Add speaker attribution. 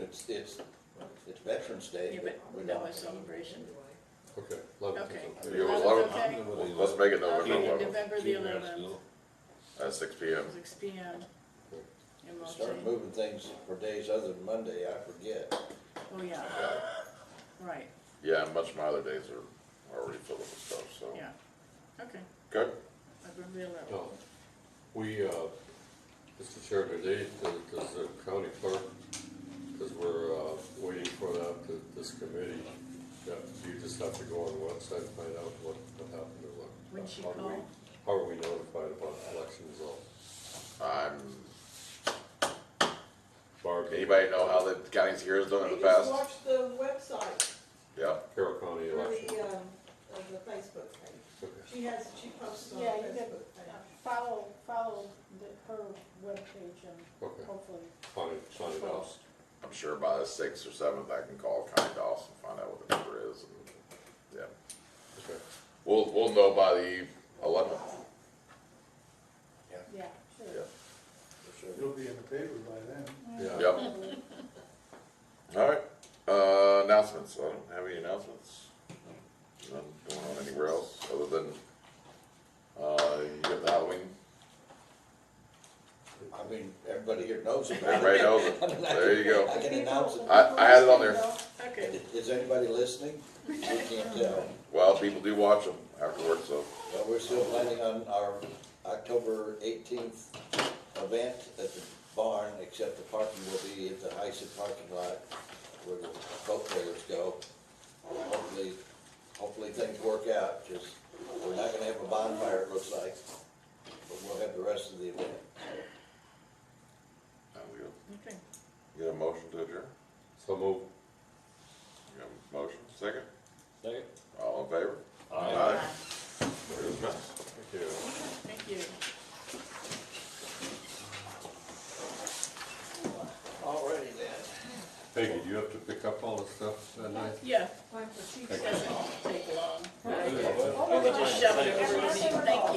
Speaker 1: it's, it's, it's Veterans Day,
Speaker 2: Yeah,
Speaker 1: but
Speaker 2: but
Speaker 1: we're
Speaker 2: no
Speaker 1: not.
Speaker 2: celebration.
Speaker 3: Okay, eleventh
Speaker 2: Okay.
Speaker 3: is okay.
Speaker 4: There you go,
Speaker 2: Eleventh,
Speaker 4: 11th.
Speaker 2: okay?
Speaker 4: Well, Let's make it November
Speaker 2: Okay,
Speaker 4: eleventh,
Speaker 2: November the eleventh,
Speaker 4: at six P M.
Speaker 2: six P M. In Mount
Speaker 1: Start
Speaker 2: Saint.
Speaker 1: moving things for days other than Monday, I forget.
Speaker 2: Oh, yeah, right,
Speaker 4: Yeah, and much of my other days are already filled up with stuff, so.
Speaker 2: yeah. Okay,
Speaker 4: Good,
Speaker 2: November the eleventh.
Speaker 3: No, we, uh, Mr. Chairman, they, the- does the county clerk, because we're, uh, waiting for that, to- this committee, that you just have to go on the website and find out what, what happened or what.
Speaker 2: When she
Speaker 3: how do we-
Speaker 2: called?
Speaker 3: How are we notified about the election results?
Speaker 4: I'm,
Speaker 3: Barb,
Speaker 4: anybody know how the county's years done in the past?
Speaker 5: They just watch the website
Speaker 4: Yeah,
Speaker 3: Carroll County
Speaker 5: or
Speaker 3: election.
Speaker 5: the, um, of the Facebook page.
Speaker 3: Okay.
Speaker 5: She has, she posts on
Speaker 6: Yeah, you can
Speaker 5: Facebook page.
Speaker 6: follow, follow the- her webpage
Speaker 3: Okay.
Speaker 6: and hopefully.
Speaker 3: Find it, find it out.
Speaker 4: I'm sure by the sixth or seventh, I can call County Doss and find out what the number is, and, yeah.
Speaker 3: Okay.
Speaker 4: We'll, we'll know by the eleventh,
Speaker 6: Yeah, sure.
Speaker 4: yeah.
Speaker 1: for sure.
Speaker 7: You'll be in the paper by then.
Speaker 3: Yeah,
Speaker 4: Yep. All right, uh, announcements, I don't have any announcements. None going on anywhere else, other than, uh, you got the Halloween,
Speaker 1: I mean, everybody here knows about
Speaker 4: everybody
Speaker 1: it.
Speaker 4: knows it, there you
Speaker 1: I
Speaker 4: go.
Speaker 1: can announce it.
Speaker 4: I- I had it on there.
Speaker 2: Okay,
Speaker 1: Is anybody listening? We can't tell.
Speaker 4: Well, people do watch them afterwards, so,
Speaker 1: Well, we're still planning on our October eighteenth event at the barn, except the parking will be at the Heisen parking lot where the boat trailers go. Hopefully, hopefully things work out, just, we're not gonna have a bonfire, it looks like, but we'll have the rest of the event.
Speaker 4: uh, we got-
Speaker 2: okay.
Speaker 4: you got a motion to adjourn?
Speaker 3: so move.
Speaker 4: You got a motion, second?
Speaker 3: Second.
Speaker 4: All in favor?
Speaker 3: Aye.
Speaker 4: Very good.
Speaker 3: Thank you.
Speaker 2: Thank you.
Speaker 1: Alrighty then.
Speaker 3: Peggy, do you have to pick up all the stuff that night?
Speaker 2: Yeah,
Speaker 5: Time for
Speaker 2: doesn't take long.
Speaker 6: Right.
Speaker 2: We could just shove it over, thank you.